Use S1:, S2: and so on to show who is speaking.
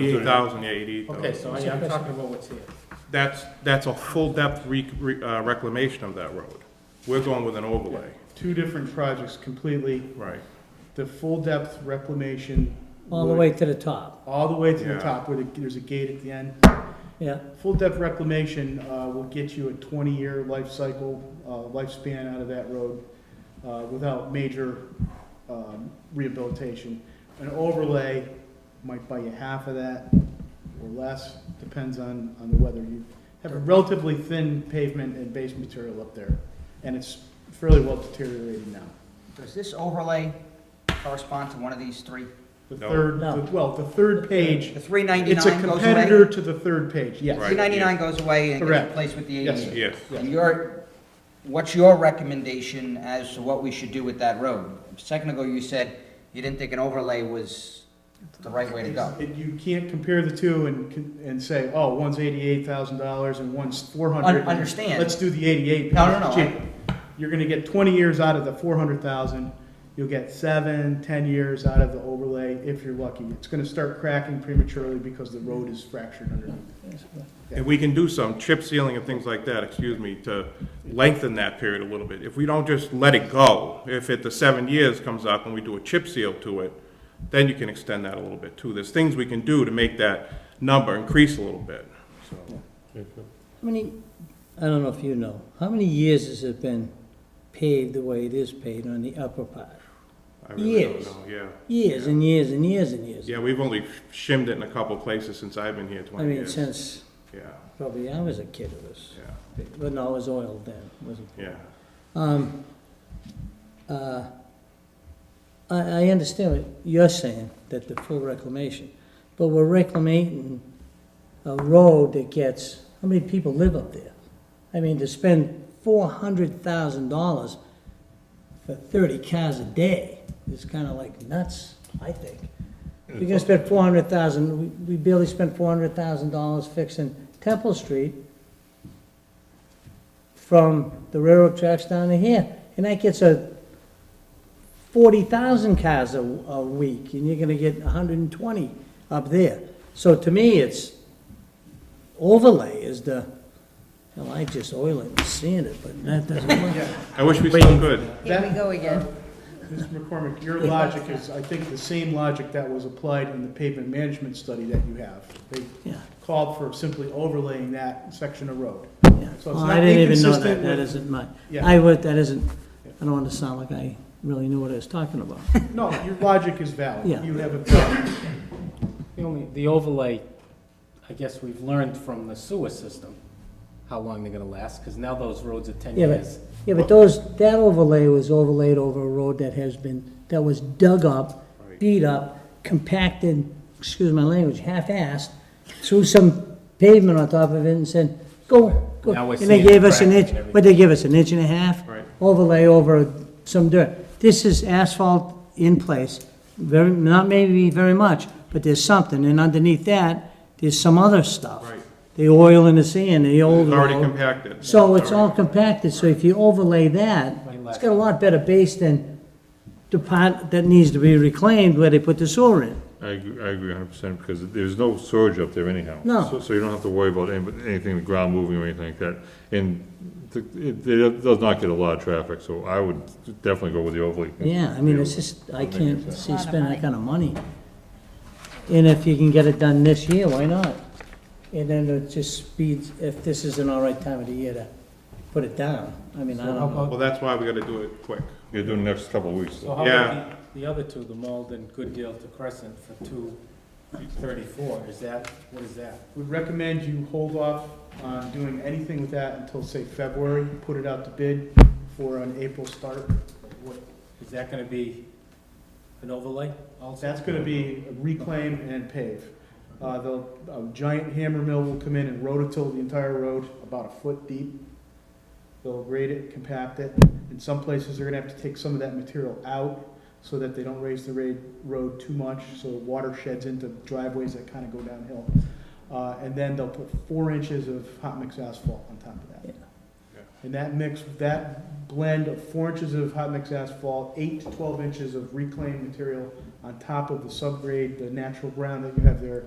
S1: Eighty-eight thousand, yeah, eighty-eight thousand.
S2: Okay, so yeah, I'm talking about what's here.
S1: That's, that's a full-depth re, re- uh, reclamation of that road. We're going with an overlay.
S3: Two different projects completely,
S1: Right.
S3: the full depth reclamation.
S4: all the
S3: would-
S4: way to the top,
S3: All the way to
S1: Yeah.
S3: the top where the- there's a gate at the end.
S4: yeah.
S3: Full depth reclamation uh, will get you a 20-year life cycle, uh, lifespan out of that road uh, without major um, rehabilitation. An overlay might buy you half of that or less, depends on, on the weather. You have a relatively thin pavement and base material up there, and it's fairly well deteriorated now.
S5: Does this overlay correspond to one of these three?
S3: The
S1: No.
S3: third,
S4: No.
S3: the- well, the third page,
S5: The three
S3: it's a
S5: ninety-nine goes
S3: competitor
S5: away?
S3: to the third page, yes.
S1: Right.
S5: Three ninety-nine goes away and gets
S3: Correct.
S5: replaced with the
S3: Yes, sir.
S5: eighty-eight?
S1: Yes.
S5: And your, what's your recommendation as to what we should do with that road? A second ago, you said you didn't think an overlay was the right way to go.
S3: It- You can't compare the two and, con- and say, oh, one's eighty-eight thousand dollars and one's four hundred.
S5: Un- understand.
S3: Let's do the eighty-eight.
S5: No, no, no,
S3: cheap. You're gonna get twenty years out of the four hundred thousand, you'll get seven, ten years out of the overlay if you're lucky. It's gonna start cracking prematurely because the road is fractured underneath.
S1: And we can do some chip sealing and things like that, excuse me, to lengthen that period a little bit. If we don't just let it go, if it, the seven years comes up and we do a chip seal to it, then you can extend that a little bit too. There's things we can do to make that number increase a little bit, so.
S4: How many, I don't know if you know, how many years has it been paved the way it is paved on the upper part?
S1: I really don't
S4: Years.
S1: know, yeah.
S4: Years and years and years and years.
S1: Yeah, we've only shimmed it in a couple places since I've been here
S4: I
S1: twenty
S4: mean,
S1: years.
S4: since
S1: Yeah,
S4: probably I was a kid it was,
S1: yeah,
S4: but no, it was oiled then, wasn't it?
S1: yeah.
S4: Um, uh, I, I understand what you're saying, that the full reclamation, but we're reclaiming a road that gets, how many people live up there? I mean, to spend four hundred thousand dollars for thirty cars a day is kinda like nuts, I think. We're gonna spend four hundred thousand, we, we barely spent four hundred thousand dollars fixing Temple Street from the railroad tracks down to here, and that gets a forty thousand cars a, a week, and you're gonna get hundred and twenty up there. So to me, it's overlay is the, well, I just oil it and sand it, but that doesn't work.
S1: I wish we still could.
S6: Here we go again.
S3: Uh, Mr. McCormick, your logic is, I think, the same logic that was applied in the pavement management study that you have. They
S4: Yeah,
S3: called for simply overlaying that section of road.
S4: yeah.
S3: it's
S4: Well,
S3: not
S4: I didn't even know that,
S3: inconsistent
S4: that
S3: with-
S4: isn't my,
S3: Yeah.
S4: I would, that isn't, I don't want to sound like I really knew what I was talking about.
S3: No, your logic is valid.
S4: Yeah.
S3: You have a,
S2: The only, the overlay, I guess we've learned from the sewer system, how long they're gonna last, because now those roads are ten
S4: Yeah, but-
S2: years.
S4: Yeah, but those, that overlay was overlaid over a road that has been, that was dug up, beat up, compacted, excuse my language, half-assed, threw some pavement on top of it and said, go, go.
S2: Now we're
S4: And they
S2: seeing
S4: gave us an
S2: cracks
S4: inch,
S2: and everything.
S4: what'd they give us, an inch and a half?
S1: Right.
S4: Overlay over some dirt. This is asphalt in place, very, not maybe very much, but there's something, and underneath that, there's some other stuff.
S1: Right.
S4: The oil and the sand, the old
S1: It's already
S4: road.
S1: compacted.
S4: So it's all
S1: Already-
S4: compacted, so if you overlay that,
S2: Right
S4: it's
S2: left.
S4: got a lot better base than the part that needs to be reclaimed where they put the sewer in.
S7: I agree, I agree hundred percent, because there's no surge up there anyhow.
S4: No.
S7: So- So you don't have to worry about any- anything, the ground moving or anything like that. And th- it, it does not get a lot of traffic, so I would definitely go with the overlay.
S4: Yeah, I mean, it's just, I
S7: Make it
S4: can't
S7: better.
S4: see
S6: Lot of
S4: spending
S6: money.
S4: that kind of money. And if you can get it done this year, why not? And then it just speeds, if this is an all right time of the year to put it down, I mean, I
S2: So
S4: don't
S2: how
S4: know.
S2: about,
S1: Well, that's why we gotta do it quick.
S7: You're doing the next couple of weeks.
S2: so how
S1: Yeah.
S2: about the, the other two, the Malden, Good Deal to Crescent for two thirty-four, is that, what is that?
S3: we recommend you hold off on doing anything with that until, say, February. Put it out to bid for an April start.
S2: What, is that gonna be an overlay also?
S3: That's gonna be reclaim and pave. Uh, they'll, a giant hammer mill will come in and rototill the entire road about a foot deep. They'll grade it, compact it. In some places, they're gonna have to take some of that material out so that they don't raise the ra- road too much, so water sheds into driveways that kinda go downhill. Uh, and then they'll put four inches of hot mix asphalt on top of
S4: Yeah.
S3: that. And that mix, that blend of four inches of hot mix asphalt, eight to twelve inches of reclaimed material on top of the subgrade, the natural ground that you have there,